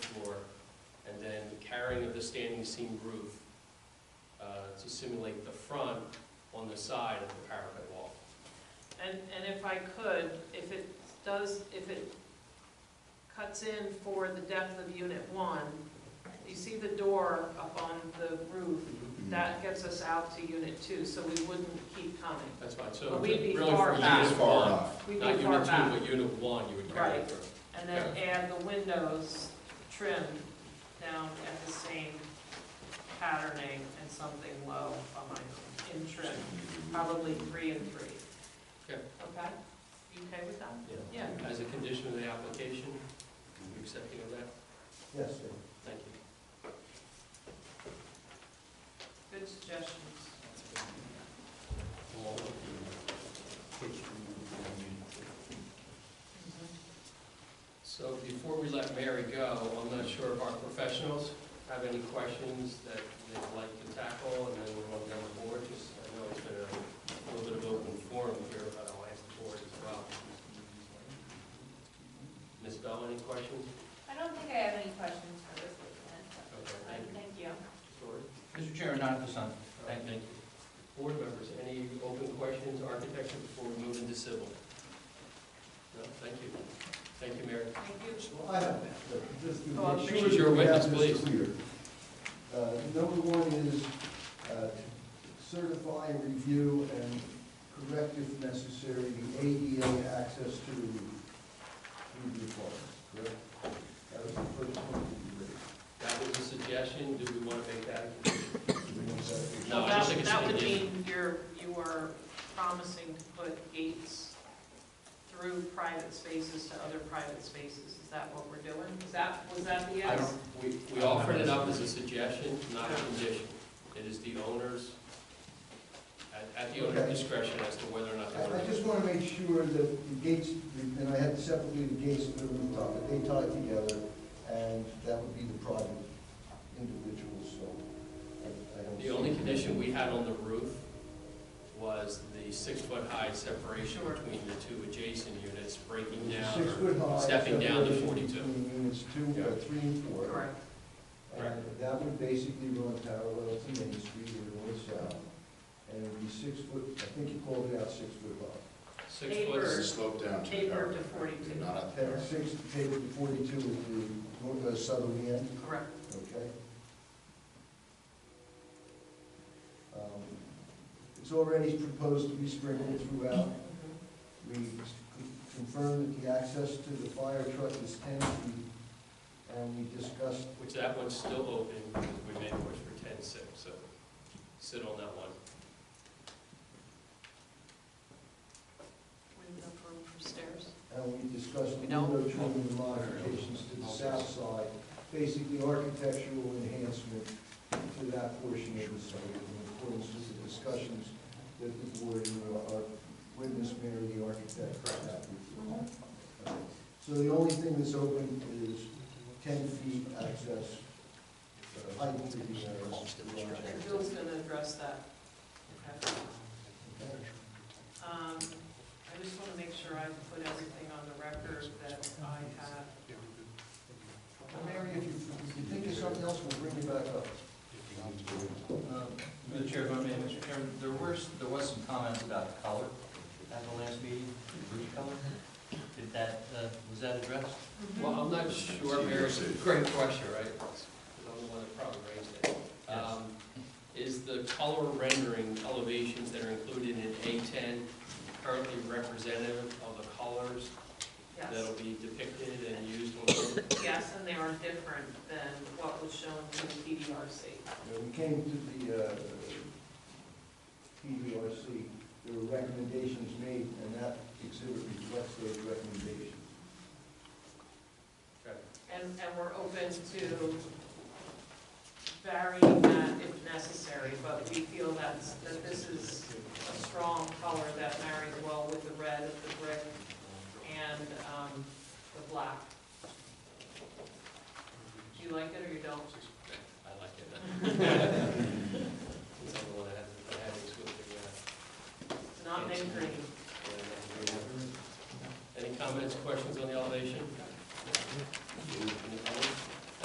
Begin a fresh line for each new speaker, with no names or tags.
flaring of the standing seam roof uh, to simulate the front on the side of the parapet wall.
And, and if I could, if it does, if it cuts in for the depth of unit one, you see the door up on the roof,
Mm-hmm.
that gets us out to unit two, so we wouldn't keep coming.
That's fine, so
But we'd be
really
far
for
back.
unit
It's
far
one,
enough.
We'd
not
be far
unit two,
back.
but unit one you would carry
Right.
through.
And then add the windows trim down at the same patterning and something low on my, in trim, probably three and three.
Okay.
Okay? You okay with that? Yeah.
As a condition of the application, you accepting of that?
Yes, sir.
Thank you.
Good suggestions.
So before we let Mary go, I'm not sure if our professionals have any questions that they'd like to tackle, and then we'll go down the board, just, I know it's been a little bit of open forum here, but I'll ask the board as well. Ms. Bell, any questions?
I don't think I have any questions for this witness. but-
Okay, thank you.
Thank you.
Sorry.
Mr. Chairman, not at this time.
Thank you. Board members, any open questions, architecture, before we move into civil? No, thank you. Thank you, Mary.
Thank you.
I have, just
Oh, I'm
to make
sure
sure that
you're a
we have
witness,
this clear. Uh, Number one is uh, certify, review, and correct if necessary, the ADA access to the roof, through the apartments, correct? That was the first one that
That was a suggestion, do we want to make that? a condition?
you raised.
No, I don't think it's
That would
conditional.
mean you're, you are promising to put gates through private spaces to other private spaces. Is that what we're doing? Is that, was that the
I
yes?
don't, we, we offered it up as a suggestion, not a condition. It is the owner's, at, at the owner's discretion as to whether or not they
I I
want to.
just want to make sure that the gates, and I had separately the gates and the rooftop, that they tie together, and that would be the private individuals, so I- I don't.
The only condition we had on the roof was the six-foot-high separation
Sure.
between the two adjacent units, breaking down.
Six foot high.
stepping down to
separation
42.
Between units two, uh,
Yeah.
three and four.
Correct.
And that would basically run parallel to Main Street or north south, and it would be six foot, I think you called it out six foot high.
Six
Neighbor.
foot,
Slope down to.
Tapered
parapet,
to 42.
Not up there.
Then six, take it to forty-two is the north, uh, southern end,
Correct.
okay? Um, It's already proposed to be sprinkled throughout.
Mm-hmm.
We confirm that the access to the fire truck is ten feet, and we discussed
which that one's still open, because we made it work for ten-six, so sit on that one.
Window room for stairs.
And we discussed
We
the
don't?
window trimming and modifications to the south side, basically architectural enhancement to that portion of the site in accordance with the discussions that the board and our witness, Mary, the architect, had with you. So the only thing that's open is ten feet access, uh, height to the, uh, garage.
And Bill's gonna address that. Okay. Um, I just wanna make sure I put everything on the record that I have.
Mary, if you, if you think of something else, we'll bring you back up.
Um, Mr. Chair, if I may, Mr. Chairman, there were, there was some comments about color at the last meeting, the roof color. Did that, uh, was that addressed?
Well, I'm not sure, Mayor, it's a great question, right? 'Cause I'm the one that probably raised it.
Yes.
Um, Is the color rendering elevations that are included in A10 currently representative of the colors
Yes,
that'll be depicted and used on the roof?
yes, and they are different than what was shown to the PDRC.
Uh, We came to the uh, PDRC, there were recommendations made, and that exhibit reflects those recommendations.
Okay.
And, and we're open to varying that if necessary, but we feel that's, that this is a strong color that marries well with the red of the brick and, um, the black. Do you like it or you don't?
I like it. It's on the one I had, I had it with
It's not mint green.
the, uh, Any comments, questions on the elevation?